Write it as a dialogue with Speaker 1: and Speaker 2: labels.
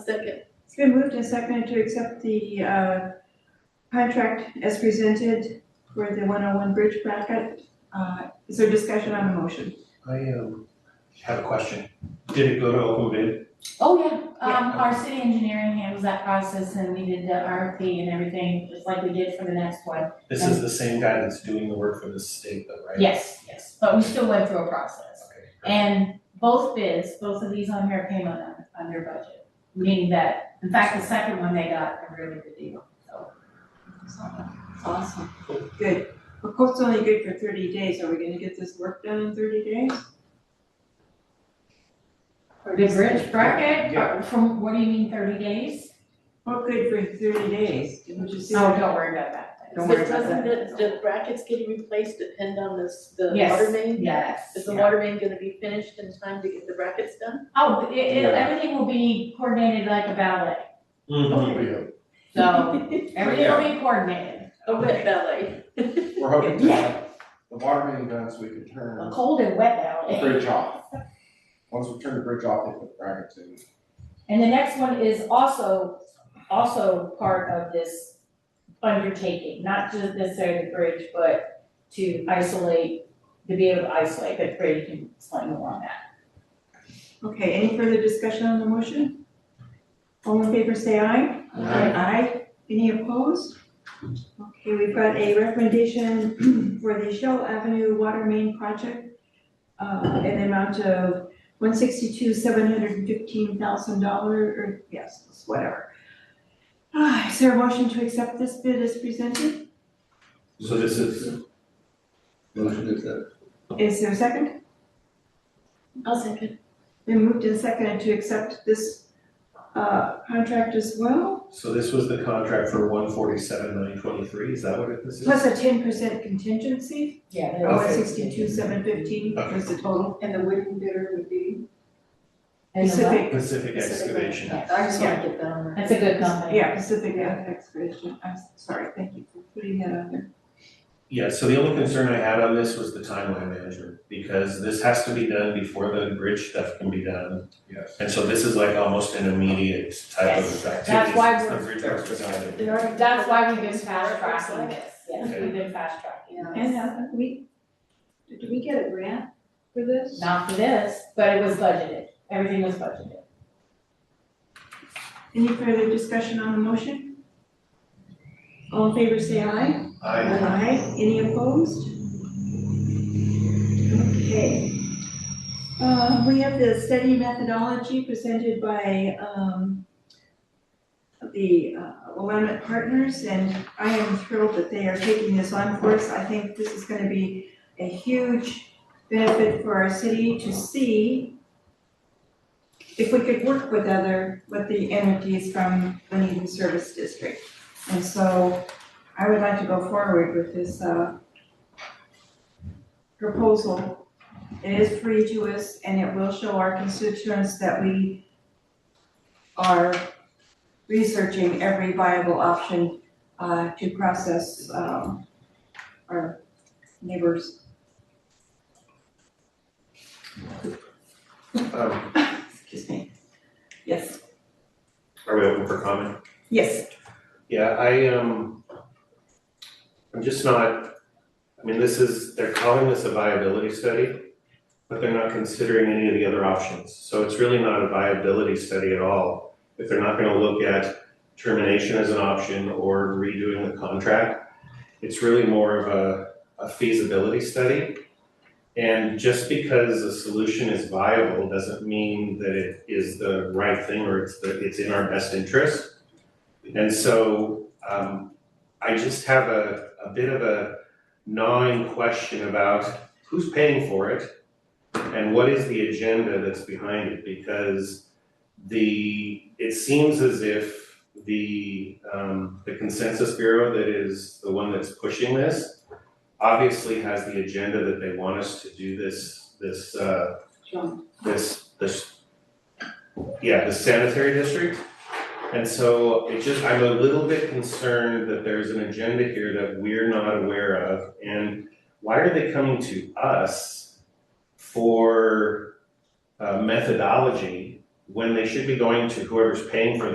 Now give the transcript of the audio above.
Speaker 1: Second.
Speaker 2: It's been moved and seconded to accept the uh, contract as presented for the 101 Bridge bracket. Uh, Is there discussion on the motion?
Speaker 3: I um have a question. Did it go to open bid?
Speaker 1: Oh, yeah, um, our city engineering handles that process and we did the RFP and everything, just like we did for the next one.
Speaker 3: This is the same guy that's doing the work for the state though, right?
Speaker 1: Yes, yes, but we still went through a process.
Speaker 3: Okay.
Speaker 1: And both bids, both of these on here came on, under budget, meaning that, in fact, the second one they got a really good deal, so. Awesome.
Speaker 2: Good. Of course, it's only good for 30 days. Are we going to get this work done in 30 days?
Speaker 1: For the bridge bracket,
Speaker 3: Yeah.
Speaker 1: from, what do you mean, thirty days?
Speaker 2: Well, good for 30 days. Didn't you see?
Speaker 1: No, Oh, don't worry about that. Don't
Speaker 4: So
Speaker 1: worry about that.
Speaker 4: Doesn't the, the brackets getting replaced depend on this, the
Speaker 1: Yes.
Speaker 4: water main?
Speaker 1: Yes.
Speaker 4: Is the water main gonna be finished in time to get the brackets done?
Speaker 1: Oh, it, it,
Speaker 3: Yeah.
Speaker 1: everything will be coordinated like a ballet,
Speaker 5: Mm-hmm.
Speaker 3: Mhm.
Speaker 1: so everything will be coordinated.
Speaker 4: A wet ballet.
Speaker 5: We're hoping to have the water main done so we can turn
Speaker 1: A cold and wet
Speaker 5: the
Speaker 1: ballet.
Speaker 5: bridge off. Once we turn the bridge off, they put brackets in.
Speaker 1: And the next one is also, also part of this undertaking, not just necessarily the bridge, but to isolate, to be able to isolate, but Brady can explain more on that.
Speaker 2: Okay, any further discussion on the motion? All in favor, say aye.
Speaker 3: Aye.
Speaker 2: Aye. Any opposed? Okay, we've got a recommendation for the Shell Avenue Water Main Project uh, in the amount of one sixty-two, seven hundred and fifteen thousand dollar, or yes, whatever. Ah, Is there a motion to accept this bid as presented?
Speaker 3: So this is,
Speaker 6: Motion to accept.
Speaker 2: Is there a second?
Speaker 4: I'll second.
Speaker 2: Been moved and seconded to accept this uh, contract as well?
Speaker 3: so this was the contract for one forty-seven, nine twenty-three, is that what it- this is?
Speaker 2: Plus a ten percent contingency,
Speaker 1: Yeah.
Speaker 2: or one sixty-two, seven fifteen was the total.
Speaker 4: And the wooden bidder would be?
Speaker 1: And the what?
Speaker 2: Pacific,
Speaker 3: Pacific excavation.
Speaker 1: Yeah.
Speaker 4: I just wanna get that on.
Speaker 1: That's a good company.
Speaker 2: yeah, Pacific Excavation, I'm sorry, thank you for putting that on there.
Speaker 3: Yeah, so the only concern I had on this was the timeline management, because this has to be done before the bridge stuff can be done.
Speaker 5: Yes.
Speaker 3: And so this is like almost an immediate type of
Speaker 1: Yes,
Speaker 3: activity.
Speaker 1: that's why
Speaker 3: since the
Speaker 1: we're-
Speaker 3: bridge work was done.
Speaker 4: They already-
Speaker 1: That's why we've been fast tracking this, yes,
Speaker 3: Okay.
Speaker 1: we've been fast tracking.
Speaker 4: Yeah.
Speaker 2: And haven't we, did we get a grant for this?
Speaker 1: Not for this, but it was budgeted, everything was budgeted.
Speaker 2: Any further discussion on the motion? All in favor, say aye.
Speaker 3: I,
Speaker 2: Aye. Any opposed? Okay. Uh, we have the study methodology presented by, um, the uh, Willamette Partners, and I am thrilled that they are taking this on for us. I think this is gonna be a huge benefit for our city to see if we could work with other, with the entities from the Needham Service District. And so, I would like to go forward with this, uh, proposal. It is free to us and it will show our constituents that we are researching every viable option, uh, to process, um, our neighbors.
Speaker 3: um,
Speaker 2: Excuse me. Yes,
Speaker 3: are we open for comment?
Speaker 2: yes.
Speaker 3: Yeah, I, um, I'm just not, I mean, this is, they're calling this a viability study, but they're not considering any of the other options. So it's really not a viability study at all. If they're not gonna look at termination as an option or redoing the contract, it's really more of a, a feasibility study. And just because a solution is viable doesn't mean that it is the right thing or it's the, it's in our best interest. And so um I just have a a bit of a gnawing question about who's paying for it and what is the agenda that's behind it because the it seems as if the um the consensus bureau that is the one that's pushing this obviously has the agenda that they want us to do this this uh this this yeah, the sanitary district. And so it just, I'm a little bit concerned that there's an agenda here that we're not aware of. And why are they coming to us for uh, methodology when they should be going to whoever's paying for